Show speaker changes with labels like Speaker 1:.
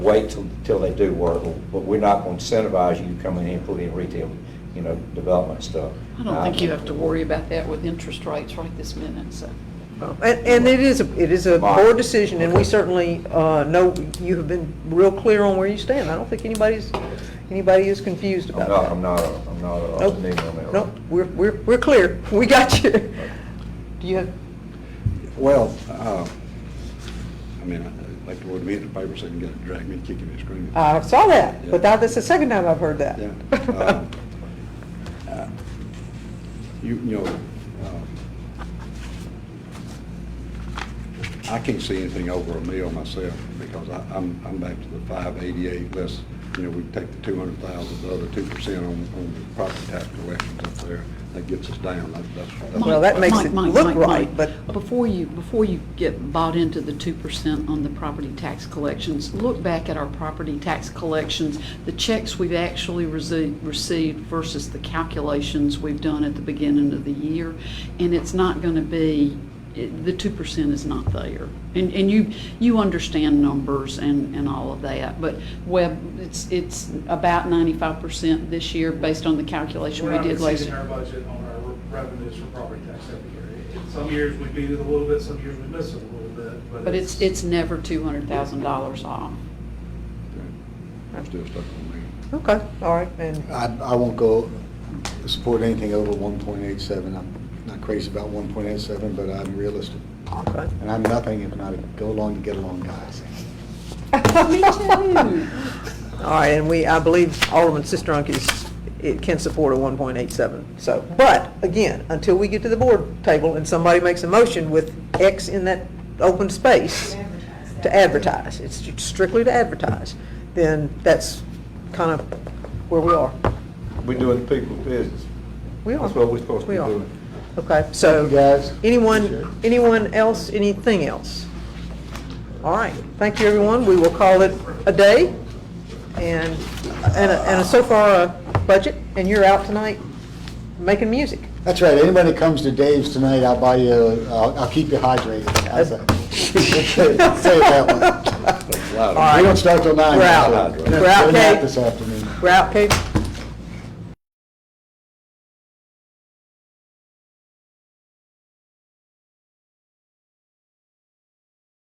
Speaker 1: wait till, till they do work, but we're not going to incentivize you to come in here and put in retail, you know, development stuff. Uh,
Speaker 2: I don't think you have to worry about that with interest rates right this minute, so.
Speaker 3: Well, And, and it is, a- it is a board decision, and we certainly uh, know, you have been real clear on where you stand. I don't think anybody's, anybody is confused
Speaker 1: I'm not,
Speaker 3: about
Speaker 1: I'm not, a- I'm not a-
Speaker 3: Nope.
Speaker 1: a nigga on
Speaker 3: that.
Speaker 1: that.
Speaker 3: No, we're, we're, we're clear, we got you. Do you have,
Speaker 4: Well, uh, I mean, I'd like to go to meet in the paper so I can get it, drag me, kicking and screaming.
Speaker 3: I saw that, but that, that's the second time I've heard that.
Speaker 4: Yeah.
Speaker 1: Uh-huh.
Speaker 4: uh, uh, You, you know, uh, I can't see anything over a mil myself because I, I'm, I'm back to the five eighty-eight less, you know, we take the two hundred thousand, the other two percent on, on the property tax collections up there. That gets us down. That- That's, that's.
Speaker 3: Well, that makes it
Speaker 2: Mike, Mike,
Speaker 3: look
Speaker 2: Mike,
Speaker 3: right,
Speaker 2: Mike,
Speaker 3: but-
Speaker 2: Before you, before you get bought into the two percent on the property tax collections, look back at our property tax collections, the checks we've actually rece- received versus the calculations we've done at the beginning of the year, and it's not gonna be, it- the two percent is not there. And, and you, you understand numbers and, and all of that, but web, it's, it's about ninety-five percent this year based on the calculation we did last year.
Speaker 5: We're not exceeding our budget on our revenues for property tax every year. In Some years we beat it a little bit, some years we miss it a little bit,
Speaker 2: But it's, it's never two hundred thousand dollars off.
Speaker 4: I'm still stuck on me.
Speaker 3: Okay, all right, and
Speaker 6: I, I won't go support anything over one point eight seven. I'm not crazy about one point eight seven, but I'm realistic.
Speaker 3: Okay.
Speaker 6: And I'm nothing if not a go along to get along guys.
Speaker 2: Me too.
Speaker 3: All right, and we, I believe Alderman Sistrunk is, it can support a 1.87, so, but, again, until we get to the board table and somebody makes a motion with X in that open space to advertise, it's strictly to advertise, then that's kind of where we are.
Speaker 1: We're doing people's business.
Speaker 3: We are.
Speaker 1: That's what we're supposed to be
Speaker 3: We are.
Speaker 1: doing.
Speaker 3: Okay, so.
Speaker 6: Thank you, guys. Appreciate it.
Speaker 3: Anyone, anyone else, anything else? All right, thank you, everyone. We will call it a day. And, and, a- and a so far, a budget, and you're out tonight making music.
Speaker 6: That's right. Anybody that comes to Dave's tonight, I'll buy you, I'll, I'll keep you hydrated. How's that? Say it that way.
Speaker 4: Loud.
Speaker 3: All right.
Speaker 6: We don't start till nine.
Speaker 3: We're out.
Speaker 6: so-
Speaker 3: We're out,
Speaker 6: We're not
Speaker 3: Kate.
Speaker 6: this afternoon.
Speaker 3: We're out, Kate.